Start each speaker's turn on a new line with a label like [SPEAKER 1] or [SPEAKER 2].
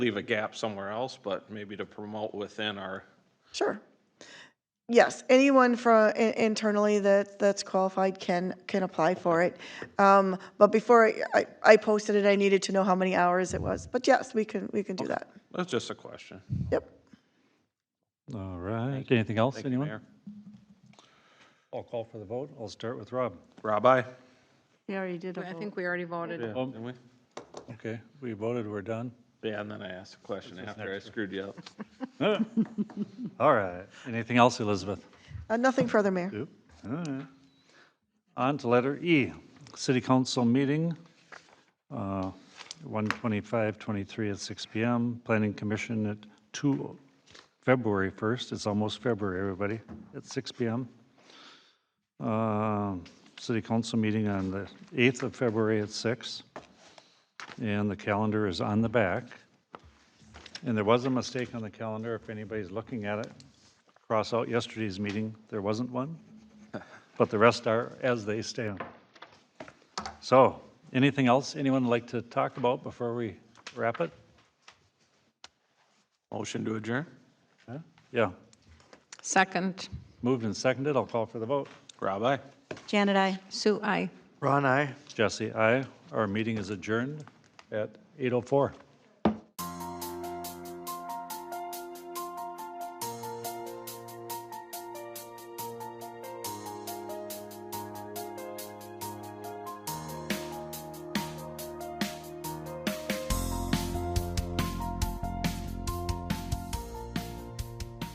[SPEAKER 1] leave a gap somewhere else, but maybe to promote within our,
[SPEAKER 2] Sure. Yes, anyone from internally that, that's qualified can, can apply for it. Um, But before I- I, I posted it, I needed to know how many hours it was. But yes, we can, we can do that.
[SPEAKER 1] that's just a question.
[SPEAKER 2] Yep.
[SPEAKER 3] All right. Anything else,
[SPEAKER 1] Thank you,
[SPEAKER 3] anyone?
[SPEAKER 1] Mayor.
[SPEAKER 3] I'll call for the vote. I'll start with Rob.
[SPEAKER 1] Rob, aye?
[SPEAKER 4] We already did a
[SPEAKER 5] I
[SPEAKER 4] vote.
[SPEAKER 5] think we already voted.
[SPEAKER 1] Yeah, didn't we?
[SPEAKER 3] Okay, we voted, we're done.
[SPEAKER 1] Yeah, and then I asked a question after I screwed you up.
[SPEAKER 3] All right. Anything else, Elizabeth?
[SPEAKER 2] Uh, Nothing further, Mayor.
[SPEAKER 3] Nope. All right. On to letter E, city council meeting, uh, 1/25/23 at six PM, planning commission at 2, February 1st, it's almost February, everybody, at six PM. Uh, City council meeting on the 8th of February at six, And the calendar is on the back. And there was a mistake on the calendar, if anybody's looking at it cross out yesterday's meeting, there wasn't one, but the rest are as they stand. So, anything else anyone would like to talk about before we wrap it?
[SPEAKER 1] Motion to adjourn?
[SPEAKER 3] Yeah,
[SPEAKER 5] Second,
[SPEAKER 3] moved and seconded, I'll call for the vote.
[SPEAKER 1] Rob, aye?
[SPEAKER 4] Janet, I.
[SPEAKER 5] Sue, I.
[SPEAKER 3] Jesse, aye. Our meeting is adjourned at 8:04.